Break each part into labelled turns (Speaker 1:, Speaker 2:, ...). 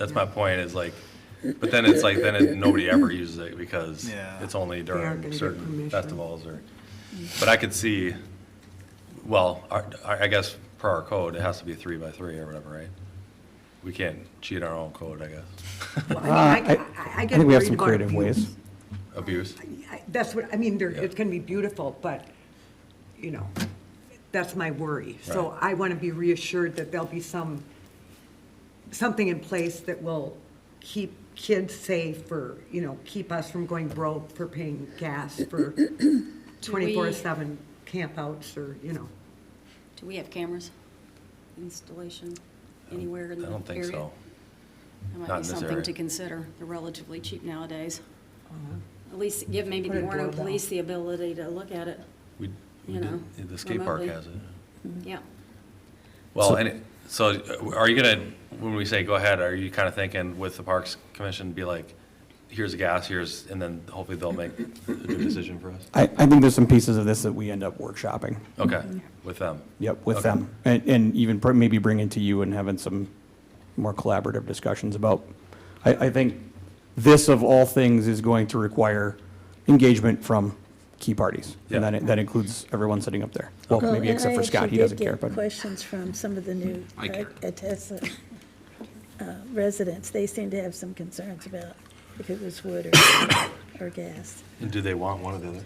Speaker 1: That's my point is like, but then it's like, then it, nobody ever uses it because
Speaker 2: Yeah.
Speaker 1: it's only
Speaker 3: aren't
Speaker 1: during
Speaker 3: gonna get
Speaker 1: certain
Speaker 3: permission.
Speaker 1: festivals or, but I could see, well, our, our- I guess per our code, it has to be three by three or whatever, right? We can't cheat our own code, I guess.
Speaker 3: I
Speaker 4: Uh, I
Speaker 3: mean, I- I- I
Speaker 4: I
Speaker 3: get
Speaker 4: think we have
Speaker 3: worried
Speaker 4: some
Speaker 3: about
Speaker 4: creative
Speaker 3: abuse.
Speaker 4: ways.
Speaker 1: Abuse.
Speaker 3: I- That's what, I mean, there,
Speaker 1: Yeah.
Speaker 3: it's gonna be beautiful, but, you know, that's my worry. So
Speaker 1: Right.
Speaker 3: I wanna be reassured that there'll be some, something in place that will keep kids safe or, you know, keep us from going broke for paying gas for twenty-four seven campouts or, you know.
Speaker 5: Do we have cameras installation anywhere
Speaker 1: I
Speaker 5: in the area?
Speaker 1: don't think so.
Speaker 5: That
Speaker 1: Not in
Speaker 5: might be
Speaker 1: this
Speaker 5: something
Speaker 1: area.
Speaker 5: to consider. They're relatively cheap nowadays. At least give maybe
Speaker 3: Put
Speaker 5: the
Speaker 3: a
Speaker 5: Warren
Speaker 3: doorbell.
Speaker 5: Police the ability to look at it.
Speaker 1: We, we
Speaker 5: You know,
Speaker 1: did, the skate park
Speaker 5: remotely.
Speaker 1: has it.
Speaker 5: Yeah.
Speaker 1: Well, and, it- so uh, are you gonna, when we say go ahead, are you kind of thinking with the Parks Commission, be like, here's the gas, here's, and then hopefully they'll make a good decision for us?
Speaker 4: I, I think there's some pieces of this that we end up workshopping,
Speaker 1: Okay, with them.
Speaker 4: yep, with
Speaker 1: Okay.
Speaker 4: them. And, and even pr- maybe bringing to you and having some more collaborative discussions about, I, I think this of all things is going to require engagement from key parties. And
Speaker 1: Yeah.
Speaker 4: that, that includes everyone sitting up there. Well, maybe
Speaker 6: and
Speaker 4: except
Speaker 6: I
Speaker 4: for Scott,
Speaker 6: actually
Speaker 4: he
Speaker 6: did
Speaker 4: doesn't
Speaker 6: get
Speaker 4: care, but.
Speaker 6: Questions from some of the new
Speaker 7: I care.
Speaker 6: uh, Tesla uh, residents, they seem to have some concerns about if it was wood or, or gas.
Speaker 1: And do they want one or the other?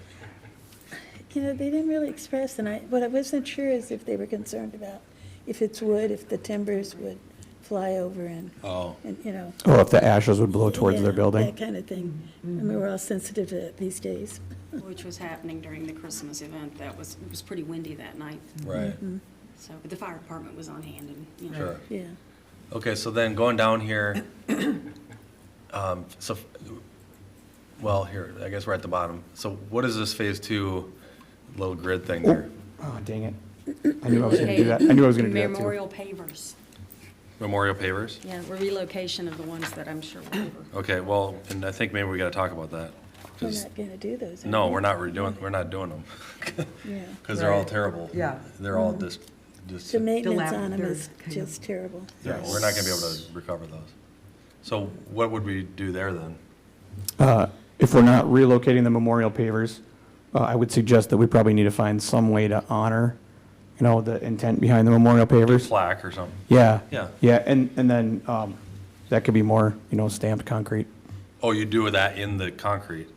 Speaker 6: You know, they didn't really express, and I, what I wasn't sure is if they were concerned about if it's wood, if the timbers would fly over and,
Speaker 1: Oh.
Speaker 6: and, you know.
Speaker 4: Or if the ashes would blow towards their
Speaker 6: yeah, That
Speaker 4: building.
Speaker 6: kind of thing. I
Speaker 3: Mm-hmm.
Speaker 6: mean, we're all sensitive to it these days.
Speaker 5: Which was happening during the Christmas event. That was, it was pretty windy that night.
Speaker 1: Right,
Speaker 5: So, but the fire department was on hand and, you know.
Speaker 1: sure.
Speaker 6: Yeah.
Speaker 1: Okay, so then going down here, um, so, well, here, I guess we're at the bottom. So what is this phase two little grid thing there?
Speaker 4: Oh, dang it. I knew I was gonna do that. I knew I was gonna do that too.
Speaker 5: Memorial pavers.
Speaker 1: Memorial pavers?
Speaker 5: Yeah, relocation of the ones that I'm sure were over.
Speaker 1: Okay, well, and I think maybe we gotta talk about that.
Speaker 6: We're
Speaker 1: 'cause-
Speaker 6: not going to do those. are
Speaker 1: no,
Speaker 6: we?
Speaker 1: we're not redoing, we're not doing them.
Speaker 6: Yeah.
Speaker 1: Because they're all
Speaker 3: Right.
Speaker 1: terrible.
Speaker 3: Yeah.
Speaker 1: They're all just, just,
Speaker 6: The maintenance on them
Speaker 3: Dilapidated
Speaker 6: is
Speaker 3: kind of-
Speaker 6: just terrible.
Speaker 1: yeah, we're not gonna be able to recover those. So what would we do there then?
Speaker 4: Uh, If we're not relocating the memorial pavers, uh, I would suggest that we probably need to find some way to honor, you know, the intent behind the memorial pavers.
Speaker 1: Slack or something?
Speaker 4: Yeah.
Speaker 1: Yeah.
Speaker 4: Yeah, and, and then um, that could be more, you know, stamped concrete.
Speaker 1: Oh, you do that in the concrete?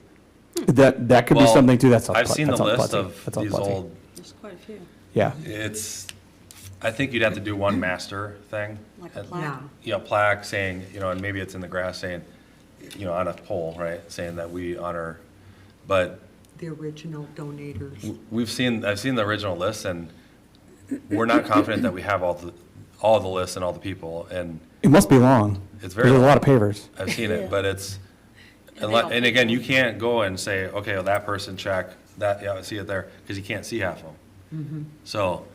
Speaker 4: That, that could be
Speaker 1: Well,
Speaker 4: something too. That's. all
Speaker 1: I've
Speaker 4: pla-
Speaker 1: seen the
Speaker 4: that's all
Speaker 1: list
Speaker 4: klutzy.
Speaker 1: of
Speaker 4: That's all
Speaker 1: these
Speaker 4: klutzy.
Speaker 1: old,
Speaker 5: There's quite a few,
Speaker 4: Yeah,
Speaker 1: it's, I think you'd have to do one master thing.
Speaker 5: like a
Speaker 1: And-
Speaker 5: plaque.
Speaker 1: You know, plaque saying, you know, and maybe it's in the grass saying, you know, on a pole, right, saying that we honor, but
Speaker 3: The original donators.
Speaker 1: We've seen, I've seen the original list, and we're not confident that we have all the, all the lists and all the people, and
Speaker 4: it must be long.
Speaker 1: It's very
Speaker 4: There's a
Speaker 1: long.
Speaker 4: lot of pavers.
Speaker 1: I've seen
Speaker 6: Yeah.
Speaker 1: it, but it's,
Speaker 5: And they
Speaker 1: unle-
Speaker 5: all-
Speaker 1: and again, you can't go and say, okay, well, that person check, that, yeah, I see it there, because you can't see half of them. So,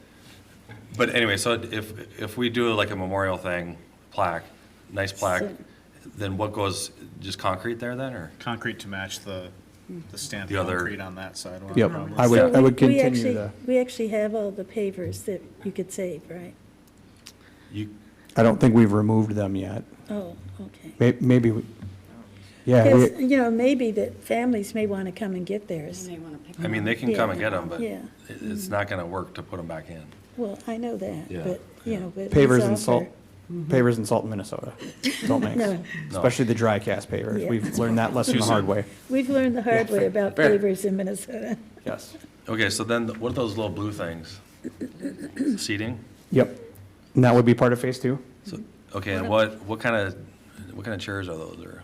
Speaker 1: but anyway, so if, if we do like a memorial thing, plaque, nice plaque,
Speaker 6: So-
Speaker 1: then what goes, just concrete there then, or?
Speaker 2: Concrete to match the, the stamped
Speaker 1: The other-
Speaker 2: concrete on that side.
Speaker 4: Yep,
Speaker 2: Probably.
Speaker 4: I would,
Speaker 6: So
Speaker 4: I would
Speaker 6: we- we
Speaker 4: continue
Speaker 6: actually-
Speaker 4: the,
Speaker 6: We actually have all the pavers that you could save, right?
Speaker 1: You,
Speaker 4: I don't think we've removed them yet.
Speaker 6: Oh, okay.
Speaker 4: May- Maybe, we- yeah,
Speaker 6: Because,
Speaker 4: we-
Speaker 6: you know, maybe that families may want to come and get theirs.
Speaker 5: You may wanna pick
Speaker 1: I mean,
Speaker 5: one.
Speaker 1: they can come and get them, but
Speaker 6: Yeah. Mm-hmm.
Speaker 1: it- it's not gonna work to put them back in.
Speaker 6: Well, I know that,
Speaker 1: Yeah.
Speaker 6: but, you know, but.
Speaker 4: pavers
Speaker 6: let's
Speaker 4: and salt,
Speaker 6: offer-
Speaker 4: pavers and salt in Minnesota. Salt mix,
Speaker 6: Mm-hmm. No.
Speaker 4: especially the dry cast pavers.
Speaker 6: Yeah.
Speaker 4: We've learned that lesson the hard way.
Speaker 6: We've learned the hard way about pavers in Minnesota.
Speaker 4: Yes.
Speaker 1: Okay, so then th- what are those little blue things? Seating?
Speaker 4: Yep. And that would be part of phase two?
Speaker 1: So, okay, and what, what kind of, what kind of chairs are those or?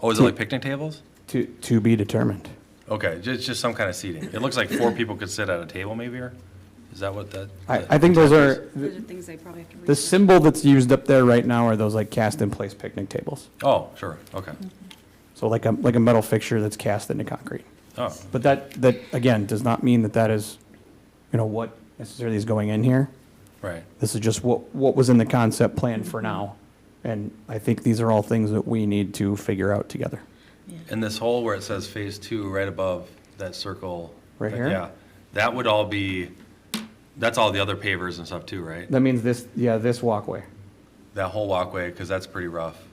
Speaker 1: Oh, is it like picnic tables?
Speaker 4: To, to be determined.
Speaker 1: Okay, just, just some kind of seating. It looks like four people could sit at a table maybe or? Is that what that?
Speaker 4: I, I think those are,
Speaker 5: Those are things they probably have to research.
Speaker 4: the symbol that's used up there right now are those like cast in place picnic tables.
Speaker 1: Oh, sure, okay.
Speaker 4: So like a, like a metal fixture that's cast into concrete.
Speaker 1: Oh,
Speaker 4: But that, that, again, does not mean that that is, you know, what necessarily is going in here.
Speaker 1: right.
Speaker 4: This is just what, what was in the concept plan for now. And I think these are all things that we need to figure out together.
Speaker 1: And this hole where it says phase two, right above that circle.
Speaker 4: Right here?
Speaker 1: Yeah, that would all be, that's all the other pavers and stuff too, right?
Speaker 4: That means this, yeah, this walkway.
Speaker 1: that whole walkway, because that's pretty rough.